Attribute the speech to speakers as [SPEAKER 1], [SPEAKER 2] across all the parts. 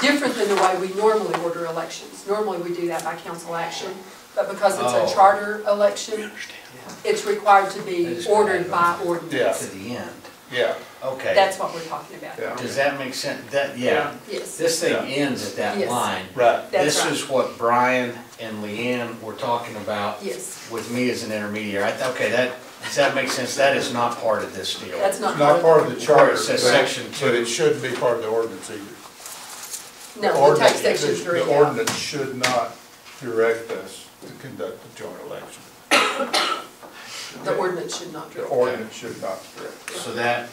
[SPEAKER 1] different than the way we normally order elections. Normally, we do that by council action, but because it's
[SPEAKER 2] Oh.
[SPEAKER 1] a charter election, it's required to
[SPEAKER 2] That
[SPEAKER 1] be
[SPEAKER 2] is
[SPEAKER 1] ordered by
[SPEAKER 2] correct.
[SPEAKER 1] ordinance.
[SPEAKER 2] To the end.
[SPEAKER 3] Yeah,
[SPEAKER 2] Okay.
[SPEAKER 1] That's what we're talking about.
[SPEAKER 3] Yeah.
[SPEAKER 2] Does that make sense? That, yeah.
[SPEAKER 1] Yes.
[SPEAKER 2] This thing
[SPEAKER 3] Yeah.
[SPEAKER 2] ends at that
[SPEAKER 1] Yes.
[SPEAKER 2] line.
[SPEAKER 3] right.
[SPEAKER 1] That's
[SPEAKER 2] This
[SPEAKER 1] right.
[SPEAKER 2] is what Brian and Leanne were talking about.
[SPEAKER 1] Yes.
[SPEAKER 2] With me as an intermediary. I thought, okay, that, does that make sense? That is not part of this deal.
[SPEAKER 1] That's not.
[SPEAKER 3] It's not part of the charter,
[SPEAKER 2] It
[SPEAKER 3] but,
[SPEAKER 2] says section
[SPEAKER 3] but
[SPEAKER 2] two.
[SPEAKER 3] it shouldn't be part of the ordinance either.
[SPEAKER 1] No, the
[SPEAKER 3] ordinance-
[SPEAKER 1] tax section
[SPEAKER 3] the-
[SPEAKER 1] three.
[SPEAKER 3] The ordinance should not direct us to conduct a joint election.
[SPEAKER 1] The ordinance should not.
[SPEAKER 3] The
[SPEAKER 1] direct.
[SPEAKER 3] ordinance should not direct. us.
[SPEAKER 2] So that,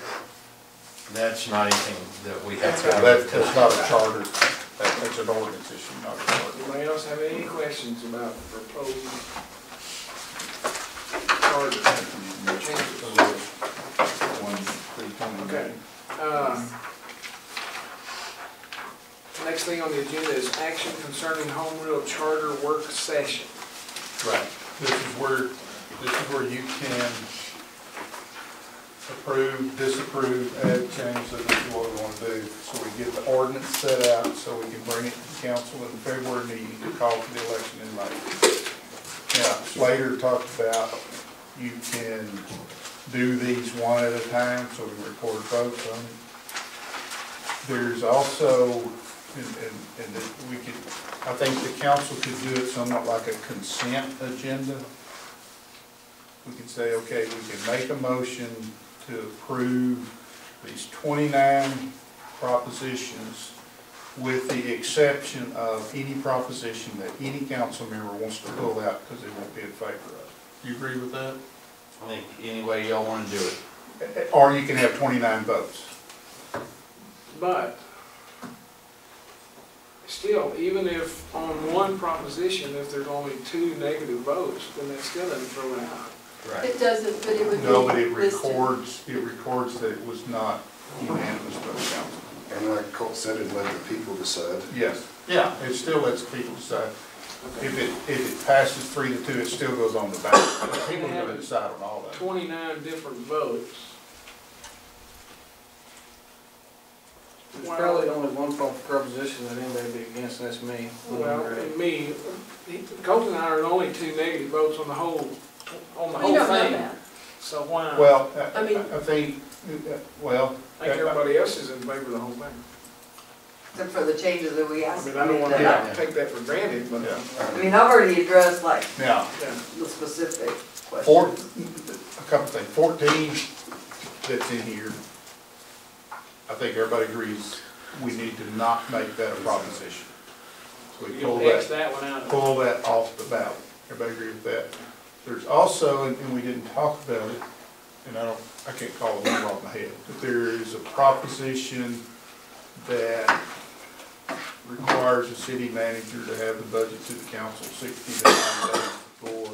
[SPEAKER 2] that's not anything that we have
[SPEAKER 1] That's
[SPEAKER 2] to.
[SPEAKER 1] right.
[SPEAKER 3] Now, That's, that's not a charter, That- that's an ordinance issue, not a charter.
[SPEAKER 4] Anybody else have any questions about the proposed charter? Okay. Uh, Next thing on the agenda is action concerning home rule charter work session.
[SPEAKER 3] Right, this is where, this is where you can approve, disapprove, add, change, so this is what we want to do. So we get the ordinance set out, so we can bring it to the council in February, meeting to call for the election in May. Now, Slater talked about you can do these one at a time, so we record votes on it. There's also, and, and, and that we could, I think the council could do it somewhat like a consent agenda. We could say, okay, we can make a motion to approve these twenty-nine propositions with the exception of any proposition that any council member wants to pull out because they won't be in favor of. Do you agree with that?
[SPEAKER 2] I think any way y'all wanna do it.
[SPEAKER 3] Or you can have twenty-nine votes.
[SPEAKER 4] But still, even if on one proposition, if there's only two negative votes, then that's still doesn't throw it out.
[SPEAKER 1] It doesn't, but it would be.
[SPEAKER 3] No, but it
[SPEAKER 1] listed.
[SPEAKER 3] records, it records that it was not unanimous by the council.
[SPEAKER 5] And like Colt said, it let the people decide.
[SPEAKER 3] Yes. Yeah. It still lets people decide. If it, if it passes three to two, it still goes on the ballot. People are gonna decide on all that.
[SPEAKER 4] Twenty-nine different votes.
[SPEAKER 6] There's probably only one pro- proposition that anybody'd be against, and that's me.
[SPEAKER 4] Well, and me, he- Colt and I are the only two negative votes on the whole, on the
[SPEAKER 1] We
[SPEAKER 4] whole
[SPEAKER 1] don't know
[SPEAKER 4] thing.
[SPEAKER 1] that.
[SPEAKER 4] So why?
[SPEAKER 3] Well, I,
[SPEAKER 1] I mean-
[SPEAKER 3] I think, uh, well,
[SPEAKER 4] I think everybody else is in favor of the whole thing.
[SPEAKER 7] Except for the changes that we
[SPEAKER 4] I
[SPEAKER 7] asked.
[SPEAKER 4] mean, I don't want
[SPEAKER 3] Yeah.
[SPEAKER 4] to take that for granted, but,
[SPEAKER 3] Yeah.
[SPEAKER 7] I mean, I've already addressed like
[SPEAKER 3] now,
[SPEAKER 4] yeah.
[SPEAKER 7] the specific
[SPEAKER 3] four,
[SPEAKER 7] questions.
[SPEAKER 3] a couple things, fourteen that's in here, I think everybody agrees, we need to not make that a proposition. So we pull
[SPEAKER 4] You'll X
[SPEAKER 3] that.
[SPEAKER 4] that one out.
[SPEAKER 3] pull that off the ballot. Everybody agree with that? There's also, and- and we didn't talk about it, and I don't, I can't call the number off my head, but there is a proposition that requires the city manager to have the budget to the council sixty to ninety days before.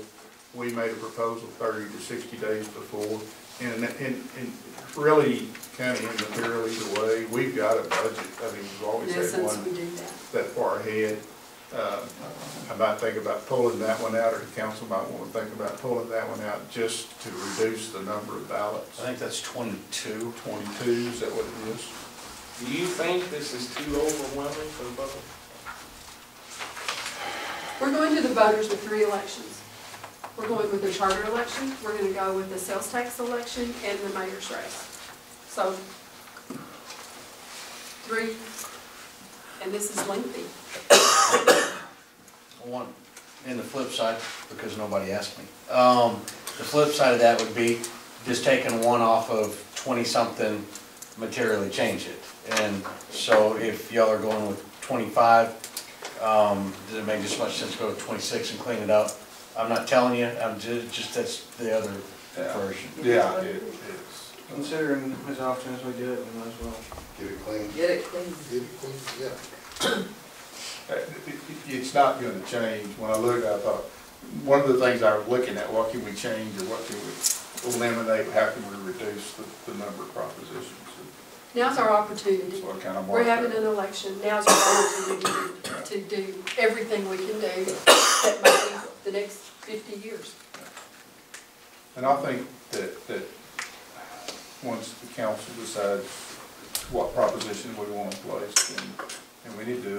[SPEAKER 3] We made a proposal thirty to sixty days before, and, and, and really, kind of in the fairly the way, we've got a budget, I mean, we've always
[SPEAKER 1] Yeah,
[SPEAKER 3] had
[SPEAKER 1] since
[SPEAKER 3] one
[SPEAKER 1] we do that.
[SPEAKER 3] that far ahead. Uh, I might think about pulling that one out, or the council might want to think about pulling that one out just to reduce the number of ballots.
[SPEAKER 2] I think that's twenty-two.
[SPEAKER 3] Twenty-two, is that what it is?
[SPEAKER 4] Do you think this is too overwhelming for the public?
[SPEAKER 1] We're going to the voters with three elections. We're going with the charter election, we're gonna go with the sales tax election, and the mayor's race. So, three, and this is lengthy.
[SPEAKER 2] One, and the flip side, because nobody asked me, um, the flip side of that would be just taking one off of twenty-something, materially change it. And so if y'all are going with twenty-five, um, does it make as much sense to go to twenty-six and clean it up? I'm not telling you, I'm ju- just, that's the other version.
[SPEAKER 3] Yeah, it is.
[SPEAKER 6] Considering as often as we do it, we might as well.
[SPEAKER 5] Get it clean.
[SPEAKER 7] Get it clean.
[SPEAKER 5] Get it clean, yeah.
[SPEAKER 3] Uh, it- it- It's not going to change. When I looked, I thought, one of the things I was looking at, what can we change, or what can we eliminate, how can we reduce the, the number of propositions?
[SPEAKER 1] Now's our opportunity.
[SPEAKER 3] So I kind of
[SPEAKER 1] We're
[SPEAKER 3] marked
[SPEAKER 1] having an
[SPEAKER 3] that.
[SPEAKER 1] election, now's our opportunity to do everything we can do that might be the next fifty years.
[SPEAKER 3] And I think that, that once the council decides what proposition we want in place, then and we need to